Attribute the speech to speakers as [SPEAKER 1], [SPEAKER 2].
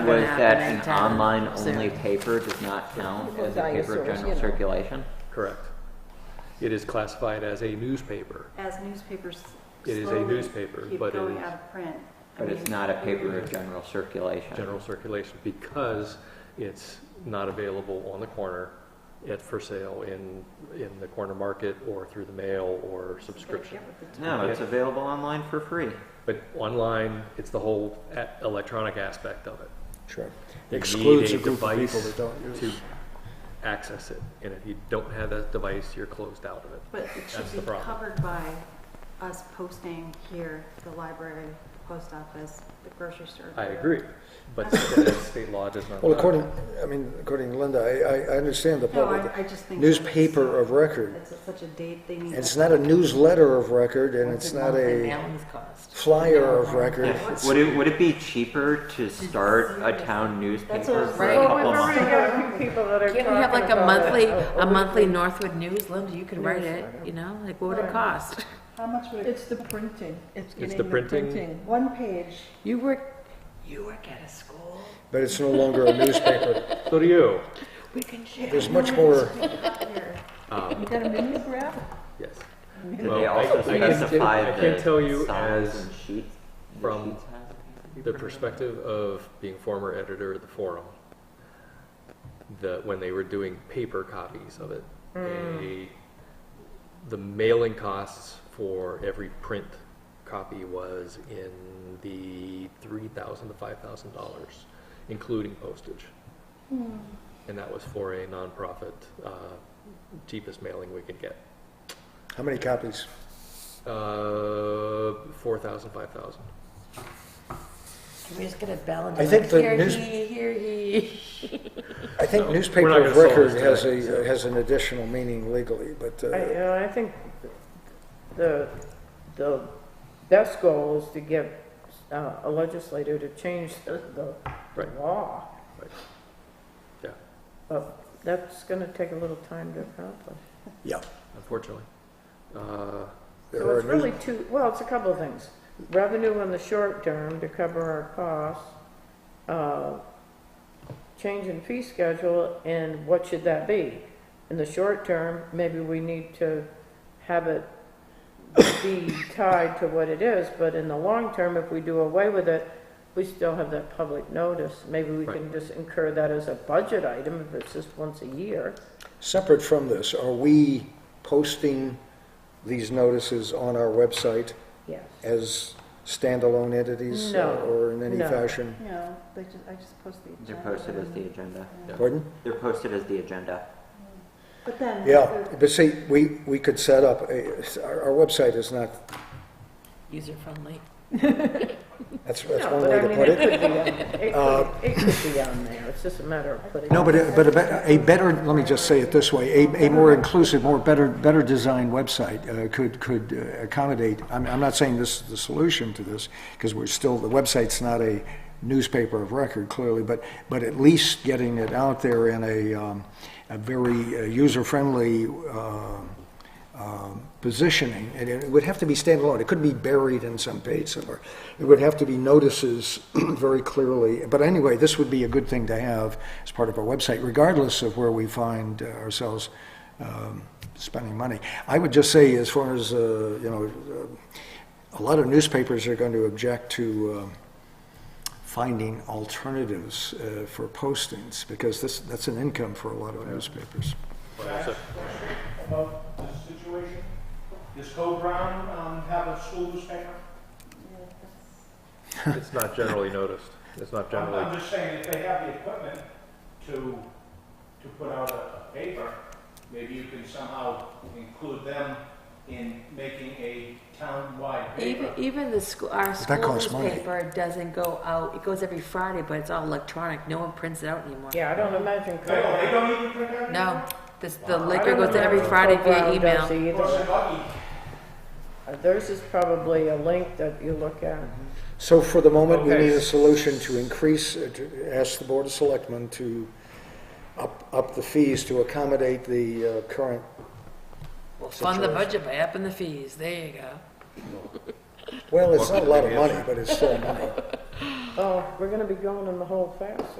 [SPEAKER 1] an
[SPEAKER 2] was
[SPEAKER 1] app
[SPEAKER 2] that
[SPEAKER 1] and
[SPEAKER 2] an
[SPEAKER 1] a tab
[SPEAKER 2] online-only
[SPEAKER 1] soon.
[SPEAKER 2] paper does not count as a paper
[SPEAKER 1] Dinosaurs,
[SPEAKER 2] of
[SPEAKER 1] you
[SPEAKER 2] general
[SPEAKER 1] know.
[SPEAKER 2] circulation?
[SPEAKER 3] Correct. It is classified as a newspaper.
[SPEAKER 4] as newspapers
[SPEAKER 3] It is a
[SPEAKER 4] slowly
[SPEAKER 3] newspaper,
[SPEAKER 4] keep
[SPEAKER 3] but it
[SPEAKER 4] going
[SPEAKER 3] is-
[SPEAKER 4] out of print. I
[SPEAKER 2] But it's
[SPEAKER 4] mean,
[SPEAKER 2] not a paper of general circulation.
[SPEAKER 3] general circulation because it's not available on the corner at for sale in, in the corner market or through the mail or subscription.
[SPEAKER 4] get with the
[SPEAKER 2] No, it's available online for free.
[SPEAKER 3] But online, it's the whole a- electronic aspect of it.
[SPEAKER 5] Sure.
[SPEAKER 3] You
[SPEAKER 5] Excludes
[SPEAKER 3] need
[SPEAKER 5] a group of
[SPEAKER 3] device
[SPEAKER 5] people that don't use.
[SPEAKER 3] To access it, and if you don't have that device, you're closed out of it.
[SPEAKER 4] But it
[SPEAKER 3] That's
[SPEAKER 4] should
[SPEAKER 3] the
[SPEAKER 4] be
[SPEAKER 3] problem.
[SPEAKER 4] covered by us posting here, the library, the post office, the grocery store.
[SPEAKER 3] I agree, but the state law does not.
[SPEAKER 5] Well,
[SPEAKER 3] allow it.
[SPEAKER 5] according, I mean, according to Linda, I, I- I understand the
[SPEAKER 4] No,
[SPEAKER 5] public.
[SPEAKER 4] I, I just think. that it's uh,
[SPEAKER 5] Newspaper of record.
[SPEAKER 4] It's such a date they need.
[SPEAKER 5] It's not a newsletter of record and
[SPEAKER 1] What's
[SPEAKER 5] it's
[SPEAKER 1] the
[SPEAKER 5] not
[SPEAKER 1] monthly
[SPEAKER 5] a
[SPEAKER 1] mailings cost?
[SPEAKER 5] flyer of record.
[SPEAKER 2] Yeah. Would it, would it be cheaper to start a town
[SPEAKER 4] That's
[SPEAKER 2] newspaper
[SPEAKER 4] what-
[SPEAKER 2] for a
[SPEAKER 1] Right.
[SPEAKER 2] couple months?
[SPEAKER 6] got a few people that are
[SPEAKER 1] Can't we have like
[SPEAKER 6] talking
[SPEAKER 1] a
[SPEAKER 6] about
[SPEAKER 1] monthly,
[SPEAKER 6] it.
[SPEAKER 1] a monthly Northwood News, Linda, you could write it, you know, like what would it cost?
[SPEAKER 6] How much would it,
[SPEAKER 7] It's the printing. It's
[SPEAKER 3] It's
[SPEAKER 7] getting
[SPEAKER 3] the
[SPEAKER 7] the
[SPEAKER 3] printing.
[SPEAKER 7] printing.
[SPEAKER 6] one page,
[SPEAKER 1] You work, you work at a school,
[SPEAKER 5] But it's no longer a newspaper.
[SPEAKER 3] So do you.
[SPEAKER 1] we can share.
[SPEAKER 5] There's much more,
[SPEAKER 3] Um,
[SPEAKER 7] You got a mimeograph?
[SPEAKER 3] Yes.
[SPEAKER 2] Did
[SPEAKER 3] Well,
[SPEAKER 2] they
[SPEAKER 3] I-
[SPEAKER 2] also
[SPEAKER 3] I can t-
[SPEAKER 2] specify
[SPEAKER 3] I can
[SPEAKER 2] the
[SPEAKER 3] tell you
[SPEAKER 2] size
[SPEAKER 3] as
[SPEAKER 2] and sheets? the
[SPEAKER 3] from
[SPEAKER 2] sheets have?
[SPEAKER 3] the perspective of being former editor at the forum, that when they were doing paper copies of it, they, the mailing costs for every print copy was in the three thousand to five thousand dollars, including postage. And that was for a nonprofit, uh, cheapest mailing we could get,
[SPEAKER 5] how many copies?
[SPEAKER 3] uh, four thousand, five thousand.
[SPEAKER 1] Can we just get a bell and
[SPEAKER 5] I
[SPEAKER 1] be
[SPEAKER 5] think
[SPEAKER 1] like,
[SPEAKER 5] the
[SPEAKER 1] here
[SPEAKER 5] news-
[SPEAKER 1] he, here he?
[SPEAKER 5] I think
[SPEAKER 3] No,
[SPEAKER 5] newspaper
[SPEAKER 3] we're not gonna
[SPEAKER 5] of
[SPEAKER 3] solve
[SPEAKER 5] record
[SPEAKER 3] this
[SPEAKER 5] has
[SPEAKER 3] today,
[SPEAKER 5] a, has an additional meaning legally, but,
[SPEAKER 6] I,
[SPEAKER 5] uh,
[SPEAKER 6] you know, I think the, the best goal is to get uh, a legislator to change the, the
[SPEAKER 3] Right.
[SPEAKER 6] law.
[SPEAKER 3] Right. Yeah.
[SPEAKER 6] But that's gonna take a little time to accomplish.
[SPEAKER 5] yeah.
[SPEAKER 3] unfortunately. Uh,
[SPEAKER 5] There
[SPEAKER 6] So
[SPEAKER 5] are
[SPEAKER 6] it's
[SPEAKER 5] news-
[SPEAKER 6] really two, well, it's a couple of things. Revenue in the short term to cover our costs, uh, change in fee schedule, and what should that be? In the short term, maybe we need to have it be tied to what it is, but in the long term, if we do away with it, we still have that public notice. Maybe we can just incur that as a budget item if it's just once a year.
[SPEAKER 5] Separate from this, are we posting these notices on our website
[SPEAKER 6] Yes.
[SPEAKER 5] as standalone entities? uh,
[SPEAKER 6] No,
[SPEAKER 5] Or in any
[SPEAKER 6] no.
[SPEAKER 5] fashion?
[SPEAKER 4] No, they just, I just post the agenda.
[SPEAKER 2] They're posted as the agenda.
[SPEAKER 5] Pardon?
[SPEAKER 2] They're posted as the agenda.
[SPEAKER 4] But then.
[SPEAKER 5] Yeah, but see, we, we could set up, a- our, our website is not,
[SPEAKER 1] User friendly.
[SPEAKER 5] that's, that's
[SPEAKER 6] No,
[SPEAKER 5] one
[SPEAKER 6] but
[SPEAKER 5] way
[SPEAKER 6] I
[SPEAKER 5] to
[SPEAKER 6] mean,
[SPEAKER 5] put
[SPEAKER 6] it
[SPEAKER 5] it. Uh,
[SPEAKER 6] could be on- It could- it could be on there, it's just a matter of putting.
[SPEAKER 5] No,
[SPEAKER 6] it
[SPEAKER 5] but,
[SPEAKER 6] on
[SPEAKER 5] it- but a be- a better, let me just say it this way, a, a more inclusive, more better, better designed website uh, could, could uh, accommodate, I'm, I'm not saying this is the solution to this, because we're still, the website's not a newspaper of record clearly, but, but at least getting it out there in a, um, a very uh, user-friendly, um, um, positioning, and it would have to be standalone. It couldn't be buried in some page somewhere. It would have to be notices very clearly. But anyway, this would be a good thing to have as part of our website, regardless of where we find uh, ourselves um, spending money. I would just say, as far as, uh, you know, uh, a lot of newspapers are going to object to um, finding alternatives uh, for postings, because this, that's an income for a lot of newspapers.
[SPEAKER 8] about this situation? Does Code Brown um, have a school newspaper?
[SPEAKER 3] It's not generally noticed. It's not
[SPEAKER 8] I'm-
[SPEAKER 3] generally,
[SPEAKER 8] I'm just saying, if they have the equipment to, to put out a paper, maybe you can somehow include them in making a town-wide
[SPEAKER 1] Even,
[SPEAKER 8] paper.
[SPEAKER 1] even the school, our
[SPEAKER 5] that
[SPEAKER 1] school
[SPEAKER 5] costs money.
[SPEAKER 1] newspaper doesn't go out, it goes every Friday, but it's all electronic, no one prints it out anymore.
[SPEAKER 6] Yeah, I don't imagine.
[SPEAKER 8] They don't, they don't even print that?
[SPEAKER 1] No, this, the
[SPEAKER 6] I
[SPEAKER 1] liquor
[SPEAKER 6] don't
[SPEAKER 1] goes out every
[SPEAKER 6] know
[SPEAKER 1] Friday
[SPEAKER 6] if
[SPEAKER 1] via
[SPEAKER 6] Brown does
[SPEAKER 1] email.
[SPEAKER 8] Of course,
[SPEAKER 6] either.
[SPEAKER 8] in Bucky,
[SPEAKER 6] Uh, Theirs is probably a link that you look at.
[SPEAKER 5] So for the moment, we
[SPEAKER 3] Okay.
[SPEAKER 5] need a solution to increase, uh, to ask the Board of Selectmen to up, up the fees to accommodate the uh, current,
[SPEAKER 1] We'll fund the budget by upping the fees, there you go.
[SPEAKER 5] well, it's not a lot of money, but it's still money.
[SPEAKER 6] Oh, we're gonna be going in the hole fast.